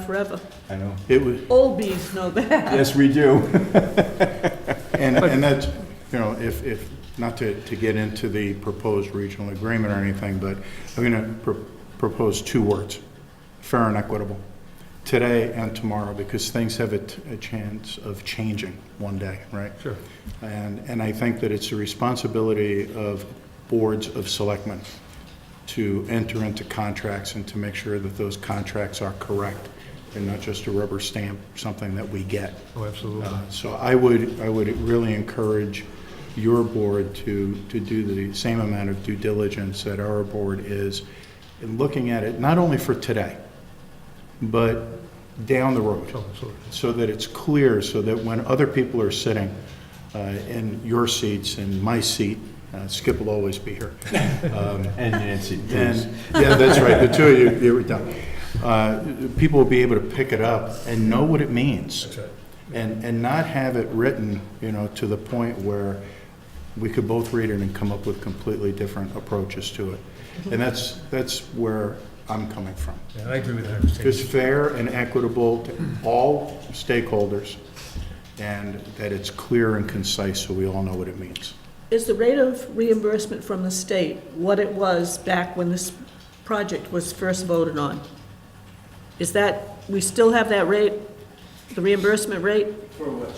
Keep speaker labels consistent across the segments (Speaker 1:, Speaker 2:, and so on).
Speaker 1: forever.
Speaker 2: I know.
Speaker 3: It was,
Speaker 1: Old bees know that.
Speaker 2: Yes, we do.
Speaker 3: and, and that's, you know, if, if, not to, to get into the proposed regional agreement or anything, but I'm gonna pr- propose two words, fair and equitable, today and tomorrow, because things have a, t- a chance of changing one day, right?
Speaker 4: Sure.
Speaker 3: And, and I think that it's the responsibility of boards of selectmen to enter into contracts and to make sure that those contracts are correct and not just a rubber stamp, something that we get.
Speaker 4: Oh, absolutely.
Speaker 3: Uh, So I would, I would really encourage your board to, to do the same amount of due diligence that our board is in looking at it, not only for today, but down the road
Speaker 4: Oh, absolutely.
Speaker 3: so that it's clear, so that when other people are sitting uh, in your seats and my seat, uh, Skip will always be here. Um,
Speaker 2: And Nancy, please.
Speaker 3: And, yeah, that's right, the two of you, you were done. Uh, People will be able to pick it up and know what it means.
Speaker 4: That's right.
Speaker 3: And, and not have it written, you know, to the point where we could both read it and come up with completely different approaches to it.
Speaker 4: Mm-hmm.
Speaker 3: And that's, that's where I'm coming from.
Speaker 4: Yeah, I agree with that. Mr.
Speaker 3: It's fair and equitable to all stakeholders, and that it's clear and concise, so we all know what it means.
Speaker 1: Is the rate of reimbursement from the state what it was back when this project was first voted on? Is that, we still have that rate, the reimbursement rate?
Speaker 5: For which?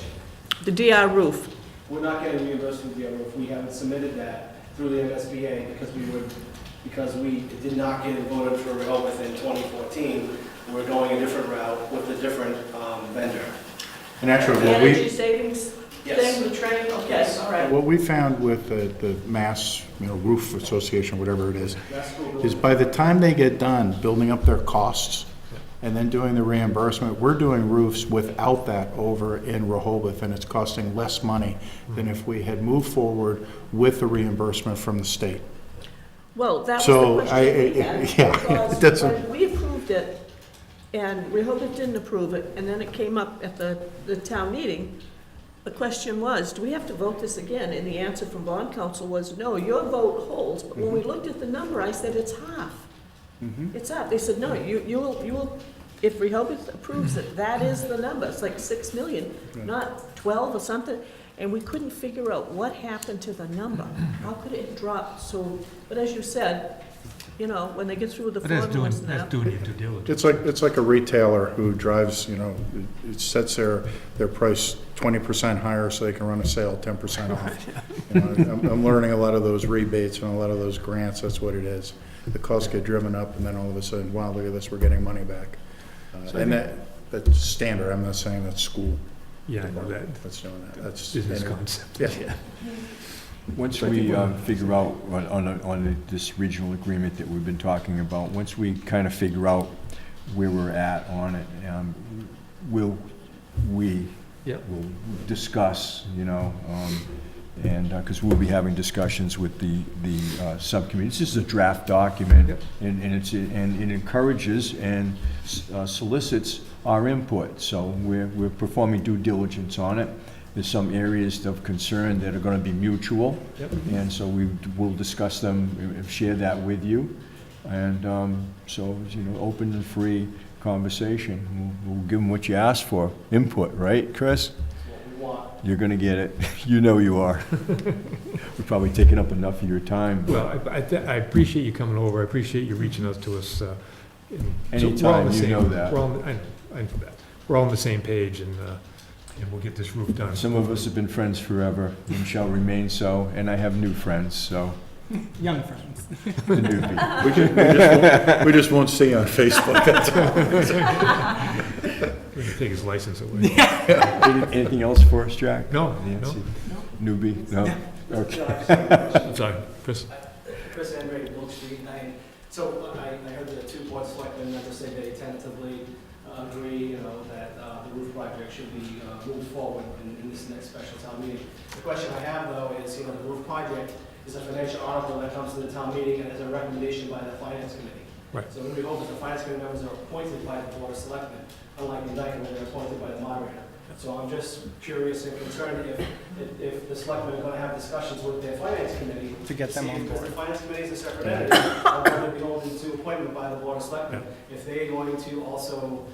Speaker 1: The DR roof,
Speaker 5: We're not getting reimbursed from the other if we haven't submitted that through the MSBA because we would, because we did not get voted for real within 2014. We're going a different route with a different um, vendor.
Speaker 3: And actually, what we,
Speaker 1: savings
Speaker 5: Yes.
Speaker 1: with train,
Speaker 5: Yes. all
Speaker 1: right.
Speaker 3: what we found with the, the Mass, you know, Roof Association, whatever it is,
Speaker 5: That's what we'll-
Speaker 3: is by the time they get done building up their costs and then doing the reimbursement, we're doing roofs without that over in Rehoboth, and it's costing less money than if we had moved forward with the reimbursement from the state.
Speaker 1: Well, that was
Speaker 3: So,
Speaker 1: the
Speaker 3: I-
Speaker 1: question we
Speaker 3: I-
Speaker 1: had.
Speaker 3: yeah,
Speaker 1: because
Speaker 3: it doesn't-
Speaker 1: when We approved it, and we hope it didn't approve it, and then it came up at the, the town meeting. The question was, do we have to vote this again? And the answer from bond council was, no, your vote holds. But when we
Speaker 3: Mm-hmm.
Speaker 1: looked at the number, I said, it's half. It's half. They said, no, you, you will, you will, if Rehoboth approves it, that is the number. It's like six million, not twelve or something. And we couldn't figure out what happened to the number. How could it drop so, but as you said, you know, when they get through the
Speaker 4: But that's doing,
Speaker 1: formulas now.
Speaker 4: that's doing your due diligence.
Speaker 3: It's like, it's like a retailer who drives, you know, it- it sets their, their price twenty percent higher so they can run a sale ten percent off. You know, I'm, I'm learning a lot of those rebates and a lot of those grants, that's what it is. The costs get driven up and then all of a sudden, wow, look at this, we're getting money back. Uh,
Speaker 4: So I
Speaker 3: And that, that's standard, I'm not saying that's school.
Speaker 4: Yeah, I know that.
Speaker 3: That's doing that, that's.
Speaker 4: Business
Speaker 3: anyway.
Speaker 4: concept.
Speaker 3: Yeah.
Speaker 2: Once we um, figure out on, on a- on a- this regional agreement that we've been talking about, once we kind of figure out where we're at on it, um, we'll, we
Speaker 4: Yep.
Speaker 2: will discuss, you know, um, and, because we'll be having discussions with the, the uh, subcommittee. This is a draft document.
Speaker 4: Yep.
Speaker 2: And, and it's, and it encourages and uh, solicits our input. So we're, we're performing due diligence on it. There's some areas of concern that are gonna be mutual.
Speaker 4: Yep.
Speaker 2: And so we will discuss them, and share that with you. And, um, so, you know, open and free conversation. We'll, we'll give them what you asked for, input, right, Chris?
Speaker 5: That's what we want.
Speaker 2: You're gonna get it. You know you are. We've probably taken up enough of your time. but-
Speaker 4: Well, I- I, thi- I appreciate you coming over. I appreciate you reaching out to us. uh, and so we're all on
Speaker 2: Anytime,
Speaker 4: the
Speaker 2: you
Speaker 4: same-
Speaker 2: know that.
Speaker 4: We're on, I know, I know that. We're all on the same page and, uh, and we'll get this roof done.
Speaker 2: Some of us have been friends forever and shall remain so, and I have new friends, so.
Speaker 6: Young friends.
Speaker 2: the newbie.
Speaker 3: We just, we just won't- we just won't see you on Facebook, that's all.
Speaker 4: We're gonna Take his license away.
Speaker 2: Any- Anything else for us, Jack?
Speaker 4: No, no.
Speaker 2: Nancy? Newbie? No? Okay.
Speaker 5: So I just have a question.
Speaker 4: I'm sorry, Chris.
Speaker 5: Chris Andre, Wilk Street, and I, so I, I heard the two board selectmen members say they tentatively uh, agree, you know, that uh, the roof project should be uh, moved forward in, in this next special town meeting. The question I have though is, you know, the roof project is a financial article that comes to the town meeting and is a recommendation by the finance committee.
Speaker 4: Right.
Speaker 5: So we hope that the finance committee members are appointed by the board of selectmen, unlike the indictment, where they're appointed by the moderator. So I'm just curious and concerned if, if- if the selectmen are gonna have discussions with their finance committee
Speaker 6: To get them
Speaker 5: See,
Speaker 6: on
Speaker 5: Because
Speaker 6: board.
Speaker 5: the finance committee is a separate entity, I'm going to be holding to appointment by the board of selectmen. If they're going to also